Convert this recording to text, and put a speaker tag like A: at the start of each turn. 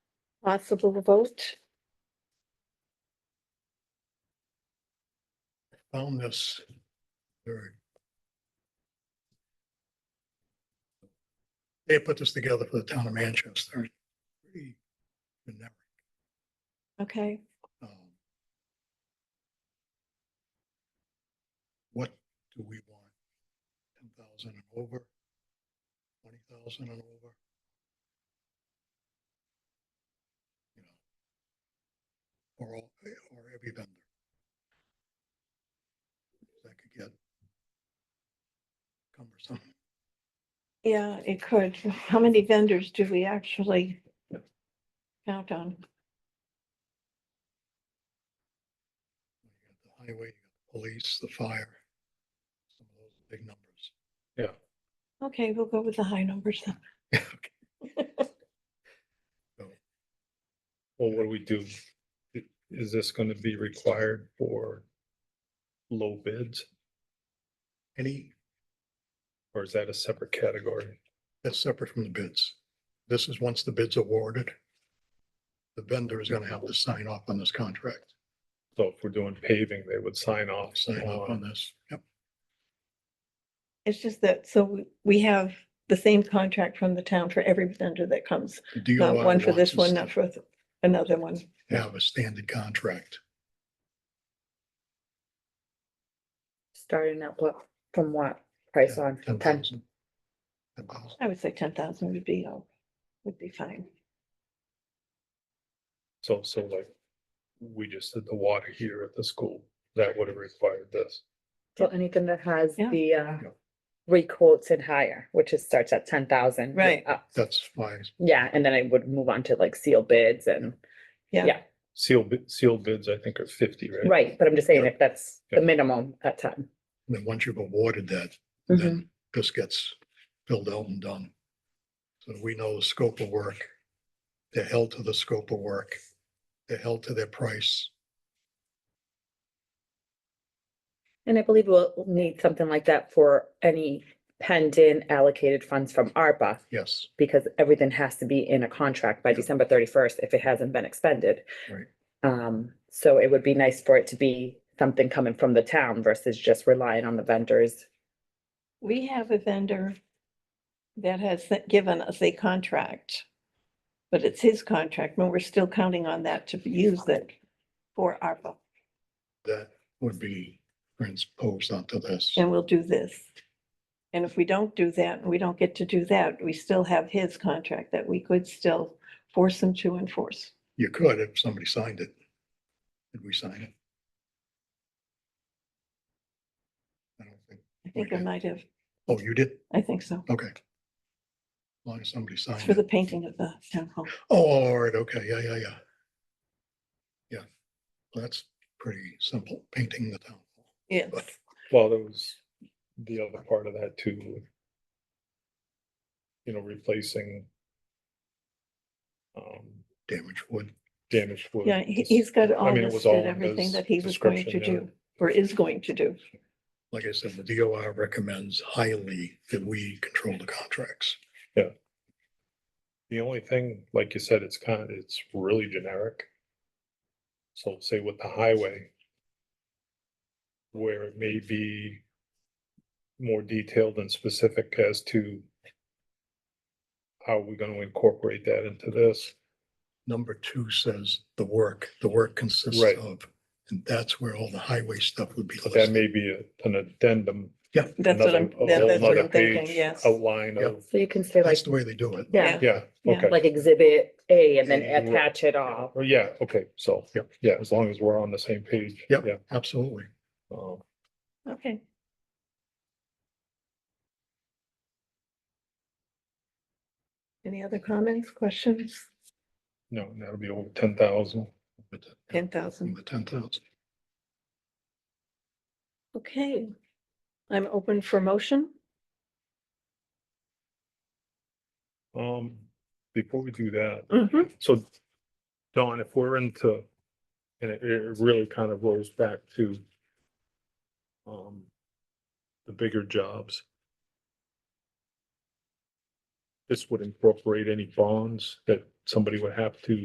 A: Possible vote?
B: found this. very They put this together for the town of Manchester. Pretty generic,
A: Okay,
B: um, What do we want? Ten thousand and over? Twenty thousand and over? You know, Or all, or every vendor. That could get cumbersome.
A: yeah, it could. How many vendors do we actually count on?
B: You got The highway, you got the police, the fire. Some of those big numbers.
A: Okay, we'll go with the high numbers then.
C: Well, what do we do? I- Is this gonna be required for low bids
B: Any,
C: or is that a separate category?
B: that's separate from the bids. This is once the bid's awarded. The vendor is gonna have to sign off on this contract,
C: So if we're doing paving, they would sign off.
B: sign off on
C: on-
B: this. Yep,
A: It's just that, so we- we have the same contract from the town for every vendor that comes.
B: the
A: Not
B: DOI
A: one for this
B: wants
A: one,
B: us
A: not for th- another one.
B: to Have a standard contract.
D: Starting at what, from what price on?
B: Ten
D: Ten,
B: thousand. Ten thousand.
A: I would say ten thousand would be, all- would be fine.
C: So, so like, we just did the water here at the school, that would have required this.
D: so anything that has
A: Yeah.
D: the uh,
B: Yeah.
D: rate quotes and higher, which is starts at ten thousand.
A: Right.
B: That's why
D: Yeah, and then I would move on to like seal bids and,
C: Sealed, bid- sealed bids, I think are fifty, right?
D: right, but I'm just saying
C: Yeah.
D: if that's the
C: Yeah.
D: minimum at ten.
B: then once you've awarded that,
A: Mm-hmm.
B: then this gets filled out and done. So we know the scope of work. They're held to the scope of work. They're held to their price.
D: And I believe we'll we'll need something like that for any pending allocated funds from ARPA.
B: Yes,
D: because everything has to be in a contract by December thirty-first if it hasn't been expended.
B: Right.
D: Um, so it would be nice for it to be something coming from the town versus just relying on the vendors.
A: We have a vendor that has th- given us a contract, but it's his contract, and we're still counting on that to use it for ARPA,
B: that would be transposed onto this.
A: and we'll do this. And if we don't do that, and we don't get to do that, we still have his contract that we could still force him to enforce.
B: You could if somebody signed it. Did we sign it? I don't think.
A: I think I
B: Okay.
A: might have,
B: Oh, you did?
A: I think so,
B: Okay. As long as somebody
A: It's for
B: signed
A: the
B: it.
A: painting of the town hall.
B: Oh, all right, okay, yeah, yeah, yeah. Yeah, Well, that's pretty simple, painting the town. hall.
A: Yes,
C: Well, there was the other part of that too. You know, replacing. Um,
B: Damaged wood.
C: damaged wood.
A: yeah, he-
C: Just-
A: he's got
C: I
A: all
C: mean, it was all
A: listed,
C: in
A: everything
C: his
A: that he was going to
C: description, yeah.
A: do, or is going to do.
B: Like I said, the DOR recommends highly that we control the contracts.
C: The only thing, like you said, it's kind of, it's really generic. So say with the highway. Where it may be. More detailed and specific as to. How we're gonna incorporate that into this,
B: Number two says the work, the work consists
C: Right.
B: of, and that's where all the highway stuff would be
C: but that
B: listed.
C: may be a- an addendum.
A: That's what
C: another-
A: I'm,
C: a
A: that-
C: whole
A: that's what
C: nother
A: I'm thinking,
C: page,
A: yes.
C: Outline
B: Yeah.
C: of,
D: So you can say like,
B: That's the way they do it.
D: yeah,
C: yeah,
A: Yeah.
C: okay,
D: like exhibit A and then
C: Yeah, you will.
D: attach it all.
C: Well, yeah, okay, so,
B: Yep.
C: yeah, as long as we're on the same page.
B: Yep.
C: Yeah,
B: Absolutely.
C: um,
A: Okay. Any other comments, questions?
C: no, that'll be over ten thousand.
B: But, yeah,
A: Ten thousand,
B: The ten thousand.
A: okay. I'm open for motion.
C: Um, before we do that,
A: Mhm.
C: so Don, if we're into, and it, it really kind of rolls back to um, the bigger jobs. This would incorporate any bonds that somebody would have to